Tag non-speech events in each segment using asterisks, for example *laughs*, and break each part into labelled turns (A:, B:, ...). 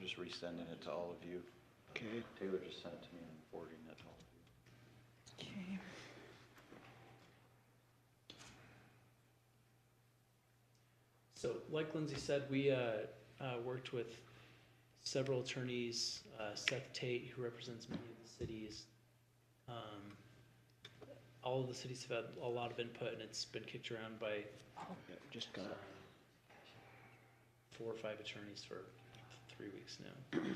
A: just resending it to all of you.
B: Okay.
A: Taylor just sent it to me and I'm forwarding it to all of you.
C: Okay.
D: So like Lindsay said, we uh, uh, worked with several attorneys, uh, Seth Tate, who represents many of the cities. Um, All of the cities have had a lot of input and it's been kicked around by
B: Yep, just got
D: um,
B: it.
D: four or five attorneys for three weeks now.
C: Okay.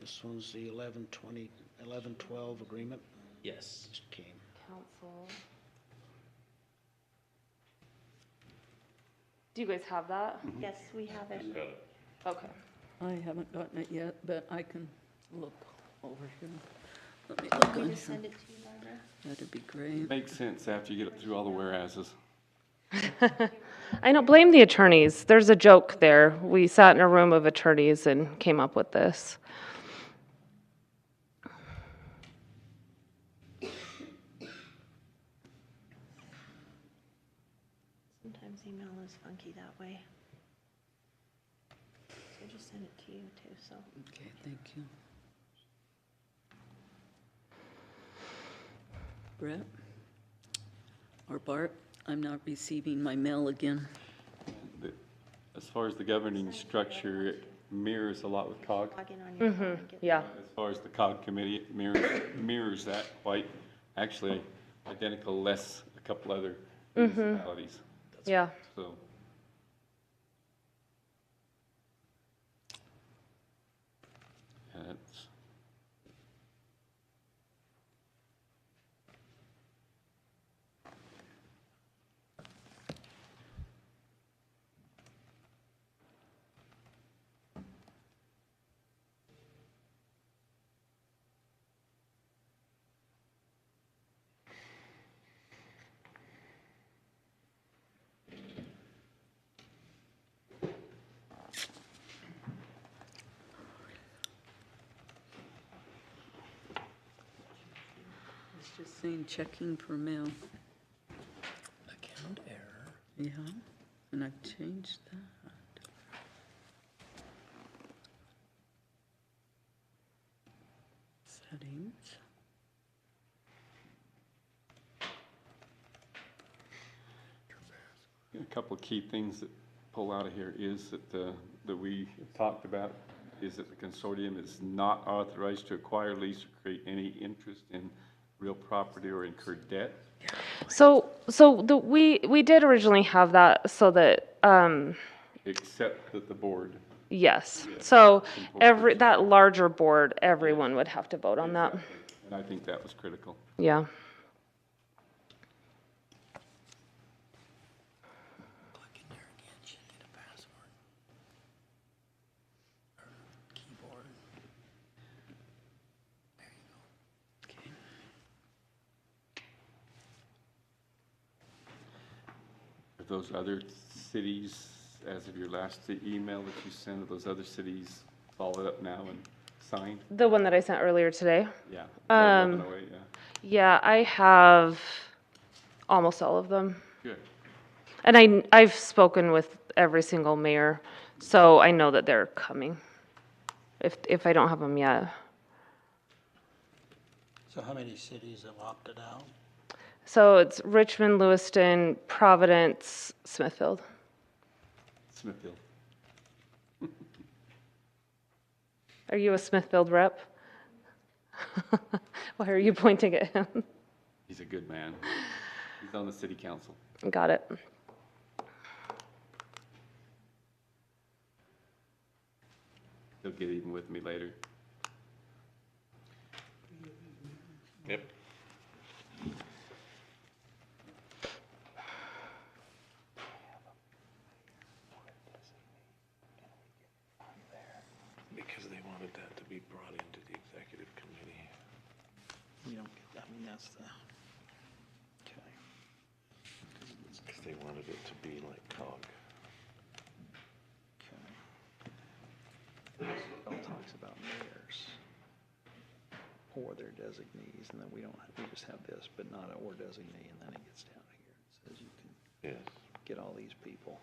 B: This one's the 11, 20, 11, 12 agreement.
D: Yes.
B: Just came.
C: Council. Do you guys have that?
E: Yes, we have it.
C: Okay.
F: I haven't gotten it yet, but I can look over here. Let me
E: Can
F: look
E: we
F: on
E: just
F: here.
E: send it to you, Barbara?
F: That'd be great.
G: Makes sense after you get through all the whereases.
C: I don't blame the attorneys. There's a joke there. We sat in a room of attorneys and came up with this.
E: Sometimes email is funky that way. So just send it to you too, so.
F: Okay, thank you. Brett? Or Bart? I'm not receiving my mail again.
G: The- As far as the governing structure, it mirrors a lot with COG.
E: Log in on your phone and get.
C: Yeah.
G: As far as the COG committee, it mirrors, mirrors that quite, actually identical, less a couple other municipalities,
C: Yeah.
G: so. And it's-
F: It's just saying checking for mail.
B: Account error.
F: Yeah, and I've changed that. Settings.
G: A couple of key things that pull out of here is that the, that we talked about, is that the consortium is not authorized to acquire, lease, or create any interest in real property or incur debt.
C: So, so the, we, we did originally have that so that, um,
G: Except that the board,
C: yes. So every, that larger board, everyone would have to vote on that.
G: and I think that was critical.
C: Yeah.
G: Are those other cities, as of your last email that you sent, are those other cities followed up now and signed?
C: The one that I sent earlier today.
G: Yeah. they're moving away, yeah.
C: Yeah, I have almost all of them.
G: Good.
C: And I, I've spoken with every single mayor, so I know that they're coming. If, if I don't have them yet.
H: So how many cities have opted out?
C: So it's Richmond, Lewiston, Providence, Smithfield.
G: Smithfield.
C: Are you a Smithfield rep? *laughs* Why are you pointing at him?
G: He's a good man. He's on the city council.
C: Got it.
G: He'll get even with me later. Yep.
I: Because they wanted that to be brought into the executive committee.
B: We don't get, I mean, that's the, okay.
I: Because they wanted it to be like COG.
A: Bill talks about mayors or their designees, and then we don't, we just have this, but not a or designee, and then it gets down here. and Says you can
I: Yes.
A: get all these people.